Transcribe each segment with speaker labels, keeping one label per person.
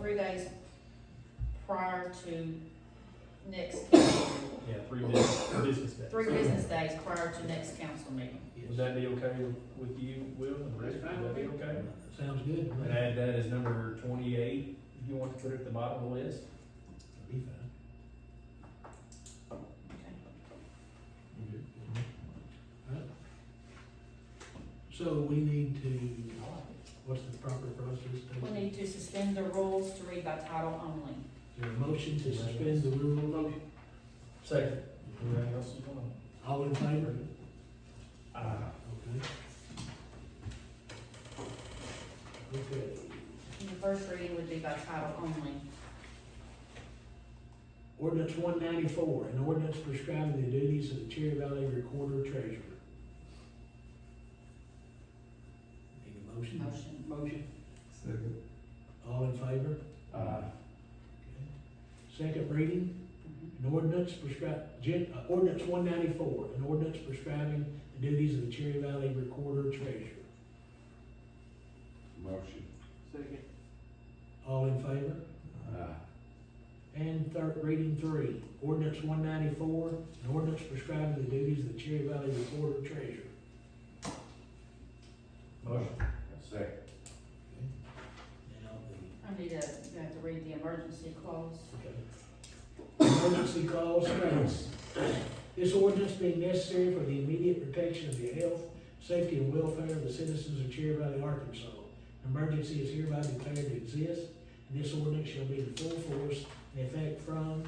Speaker 1: three days prior to next, council meeting.
Speaker 2: Yeah, three business, business days.
Speaker 1: three business days prior to next council meeting.
Speaker 2: Would that be okay with- with you, Will and Rick?
Speaker 3: That's fine
Speaker 2: Would that be
Speaker 3: with me.
Speaker 2: okay?
Speaker 4: Sounds good. to me.
Speaker 2: And add that as number twenty-eight, if you want to put it at the bottom of the list.
Speaker 4: Be fine. Alright. So we need to, what's the proper process?
Speaker 1: We need to suspend the rules to read by title only.
Speaker 4: Is there a motion to suspend the rule?
Speaker 2: Second. Anything else you want?
Speaker 4: All in favor?
Speaker 2: Uh,
Speaker 4: Okay. Okay,
Speaker 1: And The first reading would be by title only.
Speaker 4: ordinance one ninety-four, an ordinance prescribing the duties of the Cherry Valley Recorder Treasurer. Need a motion?
Speaker 1: Motion.
Speaker 3: Motion.
Speaker 5: Second.
Speaker 4: All in favor?
Speaker 2: uh,
Speaker 4: Okay. Second reading?
Speaker 1: Mhm.
Speaker 4: An ordinance prescribe, gen, uh, ordinance one ninety-four, an ordinance prescribing the duties of the Cherry Valley Recorder Treasurer.
Speaker 5: Motion.
Speaker 3: Second.
Speaker 4: All in favor?
Speaker 5: Aye.
Speaker 4: And third, reading three, ordinance one ninety-four, an ordinance prescribing the duties of the Cherry Valley Recorder Treasurer.
Speaker 2: motion.
Speaker 5: Second.
Speaker 4: Now, the,
Speaker 1: I need to, you have to read the emergency clause.
Speaker 4: okay. Emergency clause states, this ordinance being necessary for the immediate protection of the health, safety, and welfare of the citizens of Cherry Valley, Arkansas. Emergency is hereby declared to exist, and this ordinance shall be in full force and effect from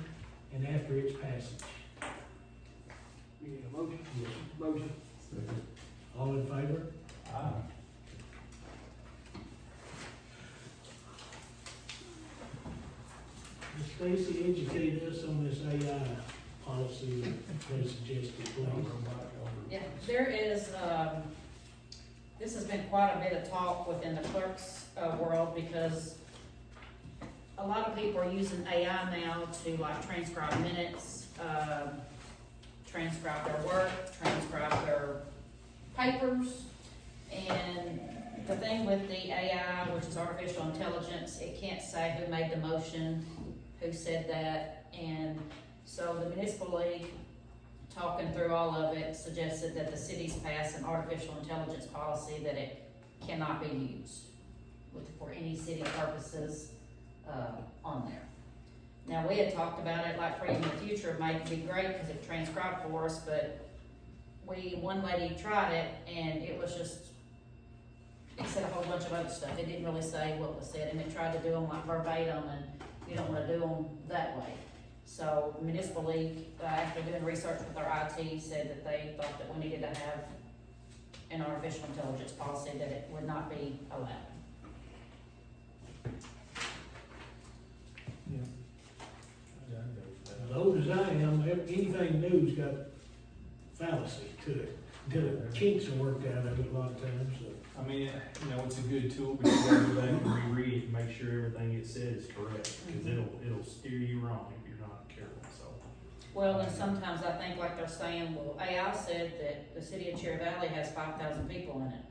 Speaker 4: and after its passage.
Speaker 3: We need a motion.
Speaker 4: Yes.
Speaker 3: Motion.
Speaker 5: Second.
Speaker 4: All in favor?
Speaker 2: Aye.
Speaker 4: Ms. Stacy, educate us on this AI policy that they suggested, please.
Speaker 1: Yeah, there is, um, this has been quite a bit of talk within the clerks, uh, world because a lot of people are using AI now to like transcribe minutes, um, transcribe their work, transcribe their papers. And the thing with the AI, which is artificial intelligence, it can't say who made the motion, who said that. And so the municipal league talking through all of it, suggested that the cities pass an artificial intelligence policy that it cannot be used with- for any city purposes, uh, on there. Now, we had talked about it, like, for in the future, it might be great, because it transcribed for us, but we, one lady tried it, and it was just, it said a whole bunch of other stuff, it didn't really say what was said, and it tried to do them like verbatim, and you don't wanna do them that way. So municipal league, uh, after doing research with our IT, said that they thought that we needed to have an artificial intelligence policy that it would not be allowed.
Speaker 2: Yeah, I'd go with that.
Speaker 4: As old as I am, ev- anything new's got fallacy to it, until it kinks are worked out of it a lot of times, so.
Speaker 2: I mean, you know, it's a good tool, but you gotta go back and reread it, and make sure everything it says is correct,
Speaker 1: Mm-hmm.
Speaker 2: because it'll, it'll steer you wrong if you're not careful, so.
Speaker 1: Well, and sometimes I think like they're saying, well, AI said that the city of Cherry Valley has five thousand people in it.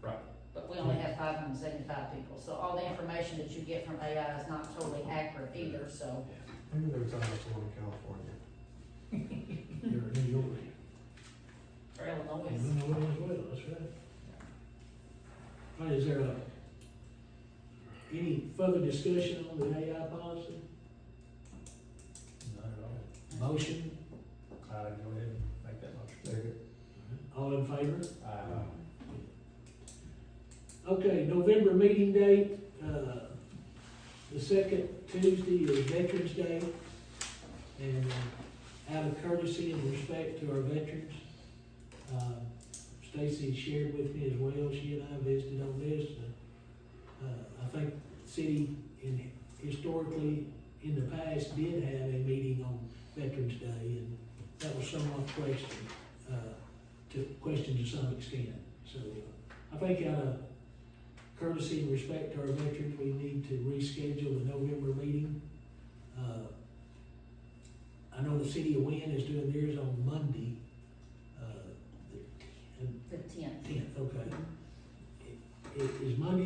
Speaker 2: Right.
Speaker 1: But we only have five hundred and seventy-five people, so all the information that you get from AI is not totally accurate either, so.
Speaker 5: Maybe they were talking about the one in California.
Speaker 4: You're a New Yorker.
Speaker 1: For Illinois,
Speaker 4: And we know it as well, that's right. All right, is there a, any further discussion on the AI policy?
Speaker 2: Not at
Speaker 4: Motion,
Speaker 2: all. Uh, go ahead and make that motion.
Speaker 5: Second.
Speaker 4: all in favor?
Speaker 2: Uh,
Speaker 4: Okay, November meeting date, uh, the second Tuesday is Veterans Day. And uh, out of courtesy and respect to our veterans, uh, Stacy shared with me as well, she and I visited on this. Uh, I think the city in, historically, in the past, did have a meeting on Veterans Day, and that was somewhat questioned, uh, to, questioned to some extent. So, uh, I think out of courtesy and respect to our veterans, we need to reschedule the November meeting. Uh, I know the city of Wynn is doing theirs on Monday, uh, the
Speaker 1: the tenth.
Speaker 4: tenth, okay. I- Is Monday